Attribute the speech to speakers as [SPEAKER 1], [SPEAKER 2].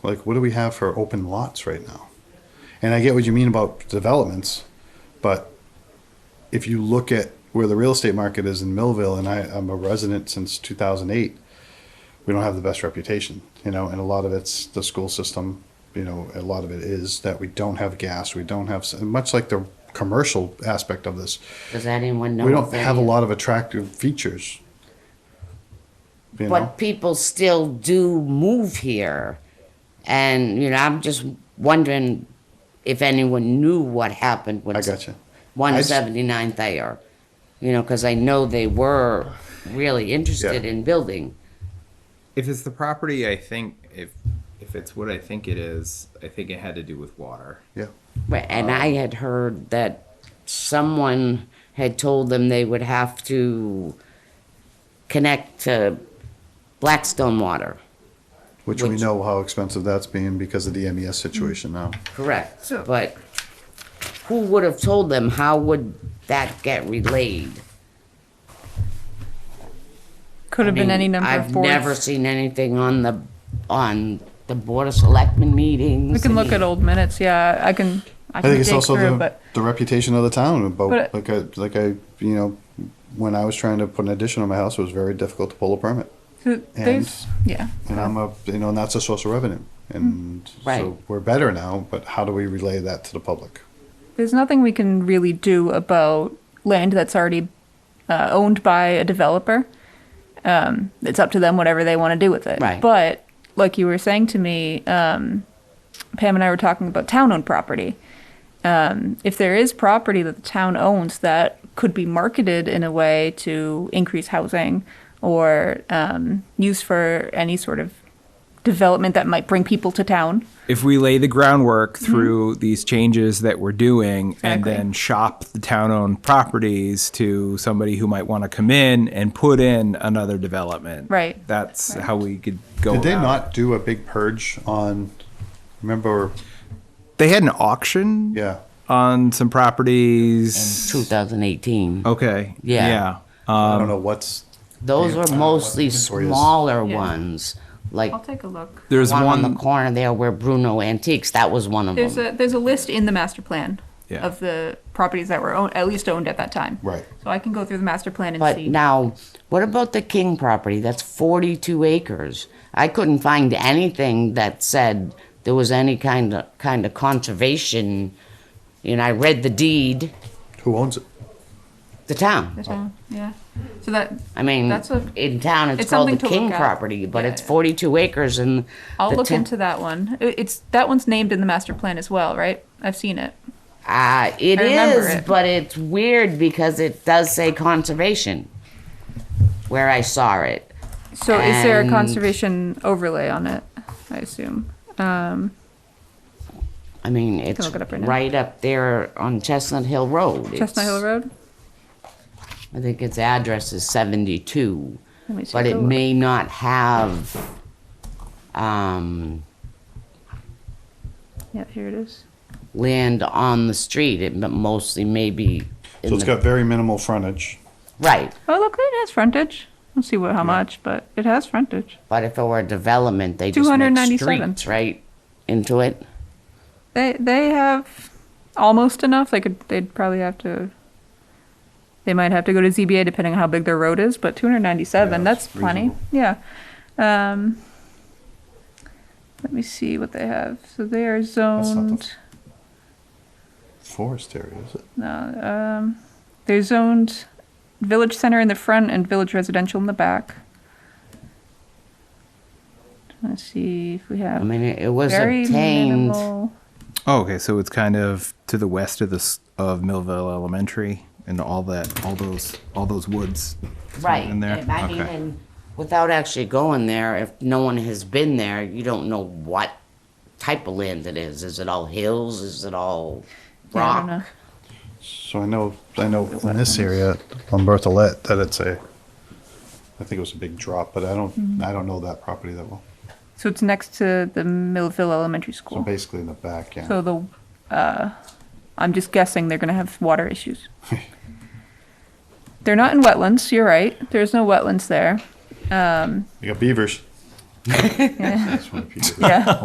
[SPEAKER 1] Like, what do we have for open lots right now? And I get what you mean about developments, but if you look at where the real estate market is in Millville, and I, I'm a resident since 2008, we don't have the best reputation, you know, and a lot of it's the school system, you know, a lot of it is that we don't have gas, we don't have, much like the commercial aspect of this,
[SPEAKER 2] Does anyone know?
[SPEAKER 1] we
[SPEAKER 2] if
[SPEAKER 1] don't
[SPEAKER 2] any
[SPEAKER 1] have a
[SPEAKER 2] of-
[SPEAKER 1] lot of attractive features. You know,
[SPEAKER 2] But people still do move here. And, you know, I'm just wondering if anyone knew what happened with
[SPEAKER 1] I gotcha. I just-
[SPEAKER 2] 179th Ayer. You know, because I know they were really interested
[SPEAKER 1] Yeah.
[SPEAKER 2] in building.
[SPEAKER 3] If it's the property, I think if if it's what I think it is, I think it had to do with water.
[SPEAKER 1] yeah,
[SPEAKER 2] But- And I had heard that someone had told them they would have to connect to Blackstone Water.
[SPEAKER 1] which we
[SPEAKER 2] Which-
[SPEAKER 1] know how expensive that's being because of the MES situation now.
[SPEAKER 2] Correct, but who would have told them? How would that get relayed?
[SPEAKER 4] Could have
[SPEAKER 2] I mean,
[SPEAKER 4] been any number
[SPEAKER 2] I've
[SPEAKER 4] of boards.
[SPEAKER 2] never seen anything on the, on the Board of Selectmen meetings.
[SPEAKER 4] we can
[SPEAKER 2] I
[SPEAKER 4] look
[SPEAKER 2] mean,
[SPEAKER 4] at old minutes. Yeah, I can. I
[SPEAKER 1] I
[SPEAKER 4] can
[SPEAKER 1] think it's
[SPEAKER 4] dig
[SPEAKER 1] also
[SPEAKER 4] through,
[SPEAKER 1] the,
[SPEAKER 4] but
[SPEAKER 1] the reputation of the town about
[SPEAKER 4] But-
[SPEAKER 1] like I like I you know when I was trying to put an addition on my house it was very difficult to pull a permit
[SPEAKER 4] th- there's yeah.
[SPEAKER 1] and I'm a you know and that's a source of revenue and
[SPEAKER 2] Right.
[SPEAKER 1] so we're better now but how do we relay that to the public
[SPEAKER 4] There's nothing we can really do about land that's already uh, owned by a developer. Um, it's up to them whatever they want to do with it.
[SPEAKER 2] Right.
[SPEAKER 4] But like you were saying to me, um, Pam and I were talking about town-owned property. Um, if there is property that the town owns that could be marketed in a way to increase housing or um, use for any sort of development that might bring people to town,
[SPEAKER 5] if we lay the groundwork through these changes that we're doing and
[SPEAKER 4] Mm-hmm. Exactly.
[SPEAKER 5] then shop the town-owned properties to somebody who might want to come in and put in another development.
[SPEAKER 4] Right.
[SPEAKER 5] That's how we could go.
[SPEAKER 1] did they
[SPEAKER 5] about it.
[SPEAKER 1] not do a big purge on remember
[SPEAKER 5] They had an auction
[SPEAKER 1] yeah
[SPEAKER 5] on some properties.
[SPEAKER 2] 2018.
[SPEAKER 5] Okay.
[SPEAKER 2] Yeah.
[SPEAKER 5] Yeah.
[SPEAKER 1] I don't know what's
[SPEAKER 2] Those were
[SPEAKER 1] don't know
[SPEAKER 2] mostly
[SPEAKER 1] what inventory is.
[SPEAKER 2] smaller
[SPEAKER 4] Yeah.
[SPEAKER 2] ones, like
[SPEAKER 4] I'll take a look.
[SPEAKER 5] There's
[SPEAKER 2] one on the
[SPEAKER 5] one.
[SPEAKER 2] corner there where Bruno Antiques, that was one of
[SPEAKER 4] There's
[SPEAKER 2] them.
[SPEAKER 4] a there's a list in the master plan
[SPEAKER 5] Yeah.
[SPEAKER 4] of the properties that were owned, at least owned at that time.
[SPEAKER 1] Right.
[SPEAKER 4] So I can go through the master plan and
[SPEAKER 2] But
[SPEAKER 4] see.
[SPEAKER 2] now, what about the King property? That's 42 acres. I couldn't find anything that said there was any kind of, kind of conservation. You know, I read the deed,
[SPEAKER 1] who owns it
[SPEAKER 2] the town.
[SPEAKER 4] the town. Yeah. So that
[SPEAKER 2] I mean,
[SPEAKER 4] That's a-
[SPEAKER 2] in town, it's,
[SPEAKER 4] it's
[SPEAKER 2] called the
[SPEAKER 4] something to
[SPEAKER 2] King
[SPEAKER 4] look at.
[SPEAKER 2] property, but
[SPEAKER 4] Yeah,
[SPEAKER 2] it's
[SPEAKER 4] yeah.
[SPEAKER 2] 42 acres and
[SPEAKER 4] I'll
[SPEAKER 2] the
[SPEAKER 4] look
[SPEAKER 2] town-
[SPEAKER 4] into that one. I- It's that one's named in the master plan as well, right? I've seen it.
[SPEAKER 2] Uh, it
[SPEAKER 4] I remember
[SPEAKER 2] is,
[SPEAKER 4] it.
[SPEAKER 2] but it's weird because it does say conservation where I saw it.
[SPEAKER 4] So is there a
[SPEAKER 2] And-
[SPEAKER 4] conservation overlay on it? I assume. Um,
[SPEAKER 2] I mean, it's
[SPEAKER 4] look it up right now.
[SPEAKER 2] right up there on Chestnut Hill Road.
[SPEAKER 4] Chestnut Hill
[SPEAKER 2] It's-
[SPEAKER 4] Road.
[SPEAKER 2] I think its address is 72,
[SPEAKER 4] Let me see
[SPEAKER 2] but
[SPEAKER 4] if I
[SPEAKER 2] it
[SPEAKER 4] look.
[SPEAKER 2] may not have, um,
[SPEAKER 4] Yeah, here it is.
[SPEAKER 2] land on the street. It m- mostly maybe
[SPEAKER 1] so
[SPEAKER 2] in
[SPEAKER 1] it's
[SPEAKER 2] the,
[SPEAKER 1] got very minimal frontage
[SPEAKER 2] right.
[SPEAKER 4] Oh, look, it has frontage. Let's see what how much, but it has frontage.
[SPEAKER 2] But if it were a development, they just make
[SPEAKER 4] 297.
[SPEAKER 2] streets right into it.
[SPEAKER 4] They they have almost enough. They could they'd probably have to. They might have to go to ZBA depending on how big their road is, but 297
[SPEAKER 1] Yeah,
[SPEAKER 4] that's,
[SPEAKER 1] that's
[SPEAKER 4] plenty. Yeah. Um, let me see what they have. So they are
[SPEAKER 1] not the-
[SPEAKER 4] zoned.
[SPEAKER 1] forest area is it
[SPEAKER 4] No, um, they're zoned village center in the front and village residential in the back. Let's see if we have
[SPEAKER 2] I mean, it, it was
[SPEAKER 4] very
[SPEAKER 2] obtained.
[SPEAKER 4] minimal.
[SPEAKER 5] Oh, okay. So it's kind of to the west of this of Millville Elementary and all that, all those, all those woods.
[SPEAKER 2] Right.
[SPEAKER 5] in there?
[SPEAKER 2] and I mean,
[SPEAKER 5] Okay.
[SPEAKER 2] and without actually going there, if no one has been there, you don't know what type of land it is. Is it all hills? Is it all
[SPEAKER 4] Yeah, I don't
[SPEAKER 2] rock?
[SPEAKER 4] know.
[SPEAKER 1] so I know I know in this area on Berthollet that it's a I think it was a big drop but I don't I don't know that property that well
[SPEAKER 4] So it's next to the Millville Elementary
[SPEAKER 1] so
[SPEAKER 4] School.
[SPEAKER 1] basically in the back yeah
[SPEAKER 4] So the, uh, I'm just guessing they're gonna have water issues. They're not in wetlands, you're right. There's no wetlands there.
[SPEAKER 1] you got beavers That's one of the people.
[SPEAKER 4] Yeah.